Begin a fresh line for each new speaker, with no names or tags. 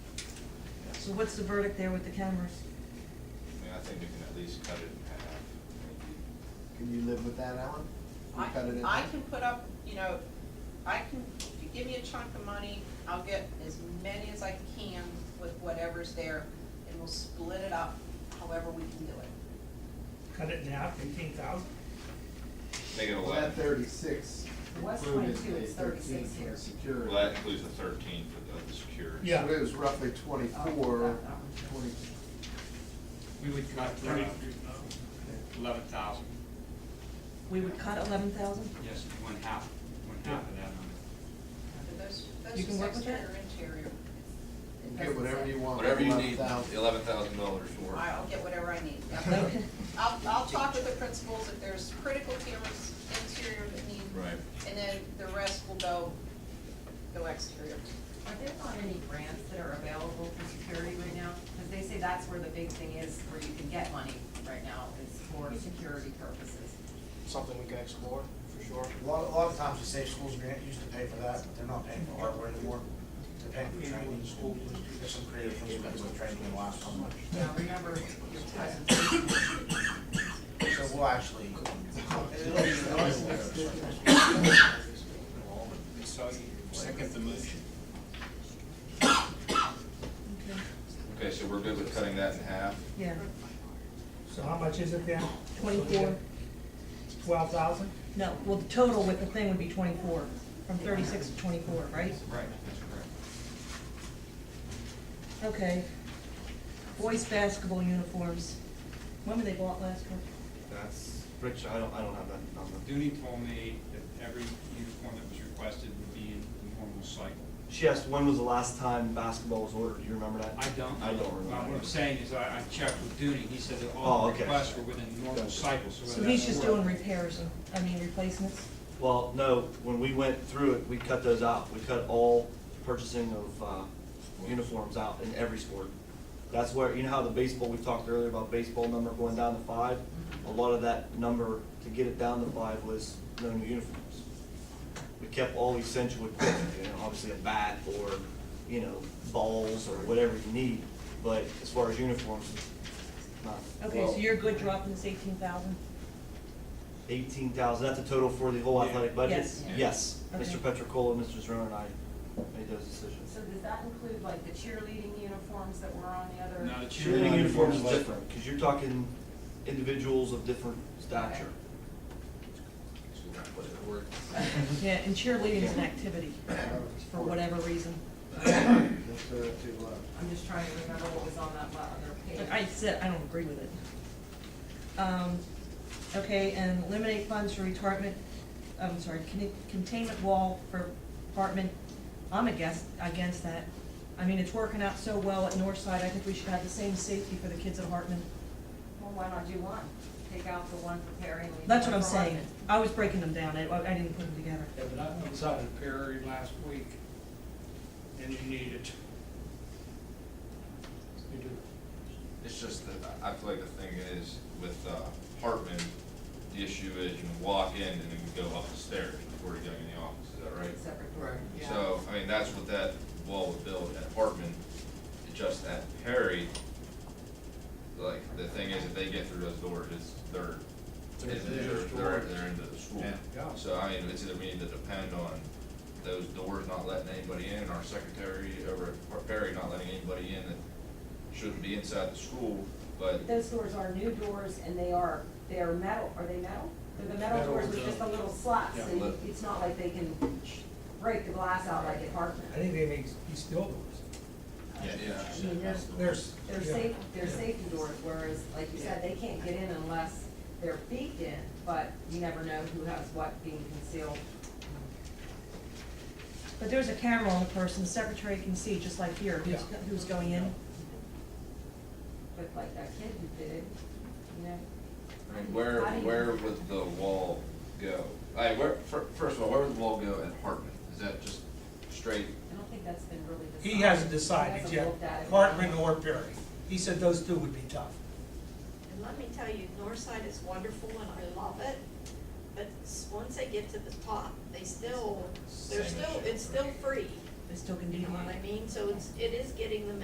So what's the verdict there with the cameras?
I mean, I think we can at least cut it in half, maybe.
Can you live with that, Alan? You
I,
cut it in
I
half?
can put up, you know, I can, if you give me a chunk of money, I'll get as many as I can with whatever's there, and we'll split it up however we can do it.
Cut it in half, fifteen thousand?
Make it
Well, that
eleven,
thirty-six
It was
included
22,
the
it's 36
thirteen for
here.
the security.
well, that includes the thirteen for the, the security.
Yeah.
So it was roughly
Oh,
twenty-four,
that- that
twenty,
one's-
We would cut eleven thousand,
We would cut eleven thousand?
yes, one half, one half of that number.
But Those, those
You can work with
exterior,
that?
interior,
and get whatever you want.
Whatever you need,
11,000.
eleven thousand dollars for.
I'll get whatever I need. yeah.
Okay.
I'll, I'll talk with the principals if there's critical cameras interior that need.
Right.
And then the rest will go, go exterior.
Are there not any grants that are available for security right now? Because they say that's where the big thing is, where you can get money right now, is for security purposes.
something we can explore, for sure.
A lot, a lot of times the state schools grant used to pay for that, but they're not paying for hardware anymore. They're paying for training in school, there's some creative things that we're training in the last couple months.
Now, remember your presentation.
So we'll actually.
So you second the motion?
Okay.
Okay, so we're good with cutting that in half?
Yeah,
So how much is it then?
twenty-four,
Twelve thousand?
no, well, the total with the thing would be twenty-four, from thirty-six to twenty-four, right?
Right, that's correct.
Okay. Boys' basketball uniforms, when were they bought last year?
That's, Rich, I don't, I don't have that number.
Dooney told me that every uniform that was requested would be in the normal cycle.
She asked, when was the last time basketball was ordered? Do you remember that?
I don't.
I don't remember.
Well, What I'm saying is, I, I checked with Dooney, he said that
Oh,
all
okay.
requests were within the normal
Gotcha.
cycle, so.
So
whether
he's
that's
just
four-
doing repairs and, I mean, replacements?
Well, no, when we went through it, we cut those out. We cut all purchasing of, uh, uniforms out in every sport. That's where, you know how the baseball, we talked earlier about baseball number going down to five? A lot of that number to get it down to five was no new uniforms. We kept all essential equipment, you know, obviously a bat or, you know, balls or whatever you need. But as far as uniforms, not.
Okay, so
well,
you're good dropping this eighteen thousand?
Eighteen thousand, that's the total for the whole athletic budget?
Yes.
Yeah.
Yes,
Okay.
Mr. Petrocola, Mr. Zerone, and I made those decisions.
So does that include like the cheerleading uniforms that were on the other?
No, the
Cheerleading uniforms is
like-
different, because you're talking individuals of different stature.
Yeah, and cheerleading is an activity, for whatever reason.
That's uh, too low.
I'm just trying to remember what was on that other page.
But I said, I don't agree with it. Um, okay, and eliminate funds for retardment, I'm sorry, con- containment wall for apartment, I'm against, against that. I mean, it's working out so well at Northside, I think we should have the same safety for the kids at Hartman.
Well, why not do one? Take out the one for Perry and leave
That's what
one
I'm
for
saying,
Hartman.
I was breaking them down, I, I didn't put them together.
Yeah, but I went inside the Perry last week, and you need it. You do.
It's just that, I I feel like the thing is, with uh, Hartman, the issue is you can walk in and then you go up the stairs before you go in the office, is that right?
Separate.
Right.
Yeah.
So, I mean, that's what that wall would build at Hartman, It's just at Perry, like, the thing is, if they get through those doors, it's, they're,
They're-
it's-
they're
they're,
just
they're,
doors.
they're into the school.
Yeah. Yeah.
So, I mean, it's either we need to depend on those doors not letting anybody in, and our secretary over at Par- Perry not letting anybody in that shouldn't be inside the school, but
Those doors are new doors and they are, they are metal, are they metal? They're the metal
Metal
doors with
with
just
the-
the little slots,
Yeah.
so you- it's not like they can break the glass out like at
I
Hartman.
think they make these steel doors.
Yeah.
I mean, there's,
There's.
they're
yeah.
safe, they're safety doors, whereas, like you said, they can't get in unless they're beaked in, but you never know who has what being concealed.
But there's a camera on the person, the secretary can see, just like here, who's,
Yeah.
who's going in.
But like that kid who did it, you know?
I mean, Where,
How do you-
where would the wall go? I, where, fir- first of all, where would the wall go at Hartman? Is that just straight?
I don't think that's been really decided.
He hasn't
He
decided
hasn't
yet,
looked at it.
Hartman or Perry. He said those two would be tough.
And let me tell you, Northside is wonderful and I love it, but s- once they get to the top, they still, they're
Same
still,
issue.
it's still free.
They still can
You
do
know what I mean? So it's, it is getting them